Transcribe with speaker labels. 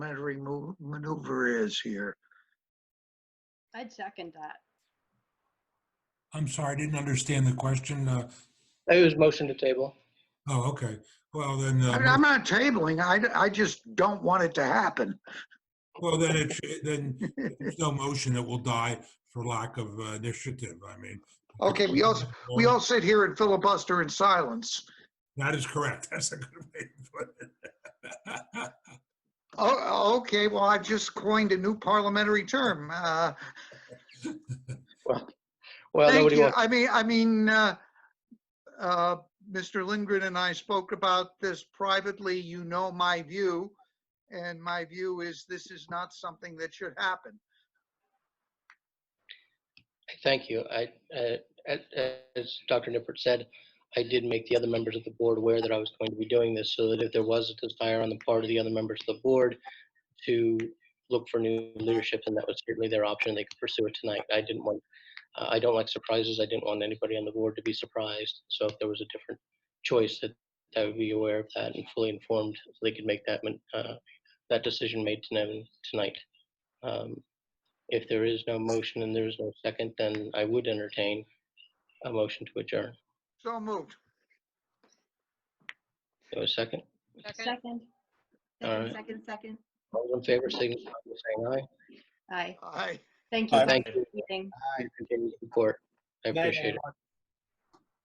Speaker 1: parliamentary mo- maneuver is here.
Speaker 2: I'd second that.
Speaker 3: I'm sorry, I didn't understand the question. Uh,
Speaker 4: It was motion to table.
Speaker 3: Oh, okay. Well, then,
Speaker 1: I mean,
Speaker 4: Uh-huh.
Speaker 1: I'm
Speaker 3: uh,
Speaker 1: not tabling, I, I just don't want it to happen.
Speaker 3: well, then it, should- then
Speaker 4: Uh-huh.
Speaker 3: there's no motion that will die for lack of uh, initiative. I mean.
Speaker 1: Okay, we all, we all sit here and filibuster in silence.
Speaker 3: That is correct. That's a good way to put it.
Speaker 1: Oh, okay, well, I've just coined a new parliamentary term. Uh,
Speaker 4: Well,
Speaker 1: Thank
Speaker 4: nobody
Speaker 1: you.
Speaker 4: wants,
Speaker 1: I mean, I mean, uh, uh, Mr. Lindgren and I spoke about this privately. You know my view. And my view is this is not something that should happen.
Speaker 4: thank you. I, uh, a- as Dr. Nippert said, I did make the other members of the board aware that I was going to be doing this so that if there was a desire on the part of the other members of the board to look for new leadership, and that was certainly their option, they could pursue it tonight. I didn't want, uh, I don't like surprises. I didn't want anybody on the board to be surprised. So if there was a different choice, that I would be aware of that and fully informed so they could make that, mon- uh, that decision made to them tonight. Um, If there is no motion and there is no second, then I would entertain a motion to adjourn.
Speaker 1: So moved.
Speaker 4: Do a second?
Speaker 5: Second,
Speaker 2: Second,
Speaker 4: Alright.
Speaker 5: second, second, second.
Speaker 4: All those in favor, signify by saying
Speaker 2: aye.
Speaker 1: Aye.
Speaker 2: Thank you.
Speaker 4: aye.
Speaker 2: for
Speaker 4: Thank you.
Speaker 2: the meeting.
Speaker 4: Aye. Continued support. I appreciate it.